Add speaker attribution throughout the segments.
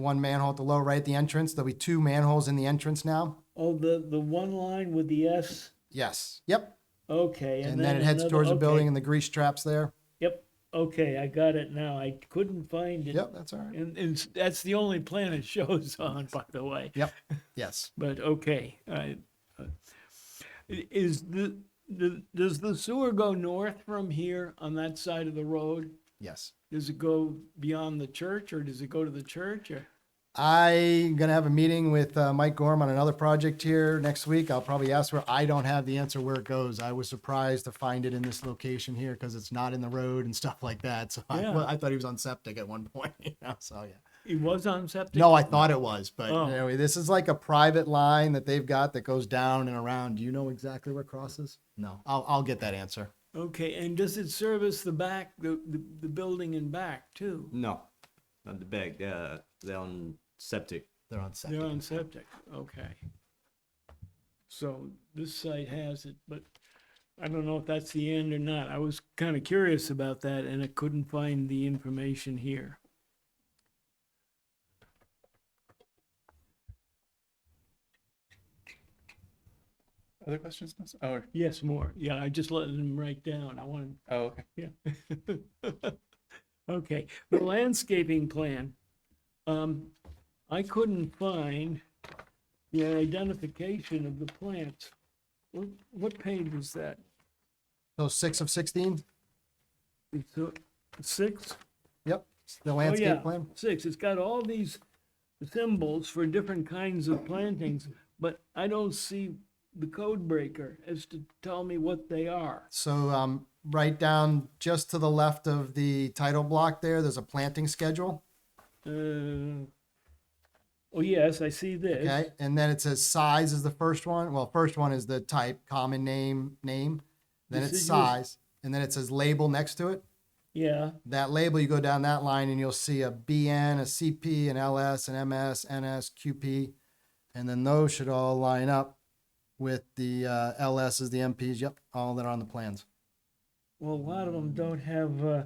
Speaker 1: one manhole at the low right at the entrance. There'll be two manholes in the entrance now.
Speaker 2: Oh, the, the one line with the S,
Speaker 1: Yes. Yep.
Speaker 2: okay.
Speaker 1: And, then, it heads
Speaker 2: another-
Speaker 1: towards the building
Speaker 2: okay.
Speaker 1: and the grease traps there.
Speaker 2: Yep, okay, I got it now. I couldn't find it.
Speaker 1: Yep, that's all right.
Speaker 2: And, and that's the only plan it shows on, by the way.
Speaker 1: Yep. Yes.
Speaker 2: But okay, I, uh, is the, the, does the sewer go north from here on that side of the road?
Speaker 1: Yes.
Speaker 2: Does it go beyond the church or does it go to the church or?
Speaker 1: I'm going to have a meeting with uh, Mike Gorm on another project here next week. I'll probably ask where I don't have the answer where it goes. I was surprised to find it in this location here because it's not in the road and stuff like that. So I,
Speaker 2: Yeah.
Speaker 1: well, I thought he was on septic at one point. You know, so yeah.
Speaker 2: It was on septic?
Speaker 1: No, I thought it was, but
Speaker 2: Oh.
Speaker 1: anyway, this is like a private line that they've got that goes down and around. Do you know exactly where it crosses? No, I'll, I'll get that answer.
Speaker 2: Okay, and does it service the back, the, the, the building and back too?
Speaker 3: No, not the back. They're, they're on septic.
Speaker 1: They're on septic.
Speaker 2: They're on septic, okay. So this site has it, but I don't know if that's the end or not. I was kind of curious about that and I couldn't find the information here.
Speaker 4: Other questions? miss? Oh,
Speaker 2: Yes, more. Yeah, I just let them write down. I wanted,
Speaker 4: oh, okay.
Speaker 2: yeah. Okay, the landscaping plan. Um, I couldn't find the identification of the plants. What, what page is that?
Speaker 1: So six of 16?
Speaker 2: It's uh, six?
Speaker 1: Yep. The
Speaker 2: Oh, yeah,
Speaker 1: landscape plan?
Speaker 2: Six. It's got all these symbols for different kinds of plantings, but I don't see the code breaker as to tell me what they are.
Speaker 1: So, um, right down just to the left of the title block there, there's a planting schedule.
Speaker 2: Uh, oh, yes, I see this.
Speaker 1: Okay. And then it says size is the first one. Well, first one is the type, common name, name. Then it's
Speaker 2: Deciduous-
Speaker 1: size. And then it says label next to it.
Speaker 2: Yeah.
Speaker 1: that label, you go down that line and you'll see a BN, a CP, an LS, an MS, NS, QP. And then those should all line up with the uh, LSs, the MPs. Yep, all that are on the plans.
Speaker 2: Well, a lot of them don't have uh,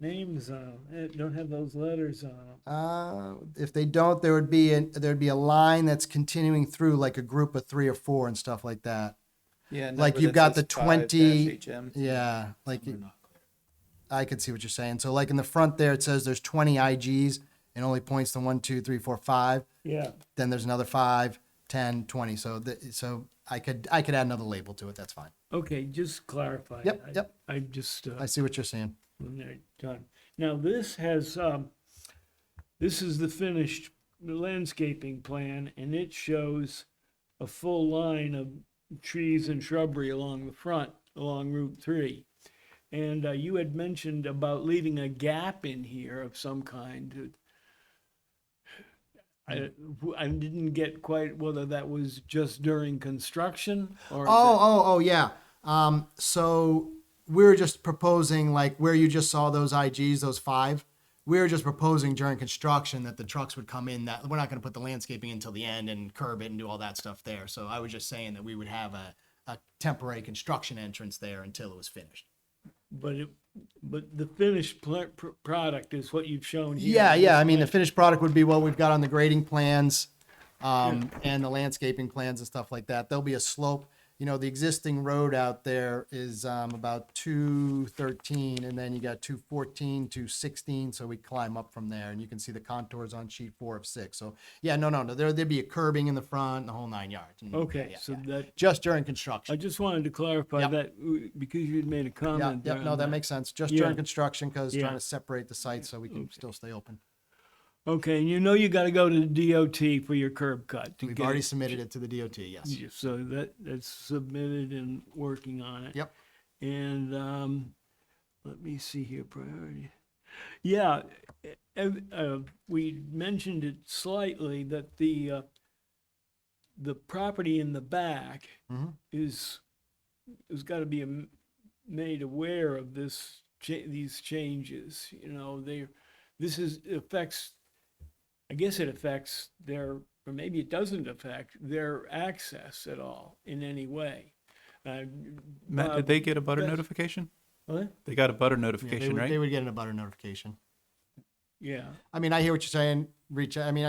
Speaker 2: names on them, don't have those letters on them.
Speaker 1: Uh, if they don't, there would be an, there'd be a line that's continuing through like a group of three or four and stuff like that.
Speaker 4: Yeah.
Speaker 1: Like
Speaker 4: number
Speaker 1: you've got
Speaker 4: that says
Speaker 1: the
Speaker 4: 5
Speaker 1: 20
Speaker 4: HM.
Speaker 1: Yeah, like I could see what you're saying. So like in the front there, it says there's 20 IGs and only points to one, two, three, four, five.
Speaker 2: Yeah.
Speaker 1: then there's another 5 10 20 so the, so i could i could add another label to it that's fine
Speaker 2: Okay, just clarify.
Speaker 1: Yep,
Speaker 2: I-
Speaker 1: yep.
Speaker 2: I just, uh,
Speaker 1: i see what you're saying
Speaker 2: when they're done. Now, this has, um, this is the finished landscaping plan, and it shows a full line of trees and shrubbery along the front, along Route Three. And, uh, you had mentioned about leaving a gap in here of some kind. to- I, I didn't get quite whether that was just during construction or. if
Speaker 1: oh
Speaker 2: it-
Speaker 1: oh oh yeah um so we were just proposing like where you just saw those igs those five we were just proposing during construction that the trucks would come in that we're not going to put the landscaping until the end and curb it and do all that stuff there so i was just saying that we would have a, a temporary construction entrance there until it was finished
Speaker 2: But it, but the finished pl- pr- product is what you've shown here.
Speaker 1: Yeah, yeah. I mean, the finished product would be what we've got on the grading plans um, and the landscaping plans and stuff like that. There'll be a slope. You know, the existing road out there is um, about 213, and then you got 214, 216. So we climb up from there, and you can see the contours on sheet four of six. So, yeah, no, no, no. There, there'd be a curbing in the front, the whole nine yards. and-
Speaker 2: Okay,
Speaker 1: yeah,
Speaker 2: so
Speaker 1: yeah.
Speaker 2: that,
Speaker 1: just during
Speaker 2: I
Speaker 1: construction.
Speaker 2: just wanted to clarify
Speaker 1: Yep.
Speaker 2: that w- because you'd made a
Speaker 1: Yeah,
Speaker 2: comment.
Speaker 1: yeah,
Speaker 2: there
Speaker 1: no,
Speaker 2: on
Speaker 1: that makes sense. Just
Speaker 2: Yeah.
Speaker 1: during construction because
Speaker 2: Yeah.
Speaker 1: trying to separate the sites so we can still stay open.
Speaker 2: Okay, and you know you gotta go to the DOT for your curb cut. to
Speaker 1: We've
Speaker 2: get
Speaker 1: already
Speaker 2: it.
Speaker 1: submitted it to the DOT. Yes.
Speaker 2: Yeah, So that, that's submitted and working on it.
Speaker 1: Yep.
Speaker 2: And, um, let me see here, priority. Yeah, eh, eh, uh, we mentioned it slightly that the, uh, the property in the back
Speaker 1: Mhm.
Speaker 2: is, has got to be am- made aware of this, cha- these changes, you know, they, this is, affects, I guess it affects their, or maybe it doesn't affect their access at all in any way. Uh,
Speaker 4: Matt,
Speaker 2: Bob,
Speaker 4: did they get a butter
Speaker 2: that's-
Speaker 4: notification?
Speaker 2: What?
Speaker 4: They got a butter
Speaker 1: Yeah, they
Speaker 4: notification,
Speaker 1: would- They
Speaker 4: right?
Speaker 1: would get in a butter notification.
Speaker 2: Yeah.
Speaker 1: I mean, I hear what you're saying. reach, I mean,